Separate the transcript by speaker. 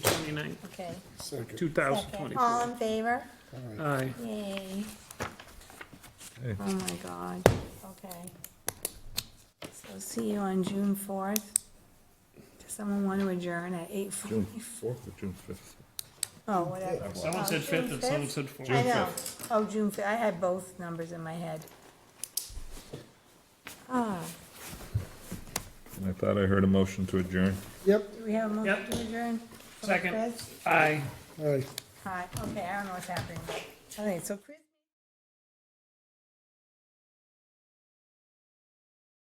Speaker 1: 29,
Speaker 2: okay.
Speaker 3: Second.
Speaker 1: 2024.
Speaker 2: All in favor?
Speaker 1: Aye.
Speaker 2: Yay,
Speaker 1: Oh, my God.
Speaker 2: okay. So see you on June fourth. Does someone want to adjourn at eight
Speaker 4: June
Speaker 2: forty?
Speaker 4: fourth or June fifth?
Speaker 2: Oh, whatever.
Speaker 1: Someone
Speaker 2: Oh,
Speaker 1: said
Speaker 2: June
Speaker 1: 5th and someone
Speaker 2: 5th?
Speaker 1: said 4th.
Speaker 2: I know. Oh, June fifth, I had both numbers in my head. Ah,
Speaker 4: I thought I heard a motion to adjourn.
Speaker 3: Yep,
Speaker 2: do we have a motion
Speaker 1: Yep.
Speaker 2: to adjourn?
Speaker 1: Second.
Speaker 2: Chris?
Speaker 1: Aye.
Speaker 3: aye.
Speaker 2: Hi, okay, I don't know what's happening. I think so Chris.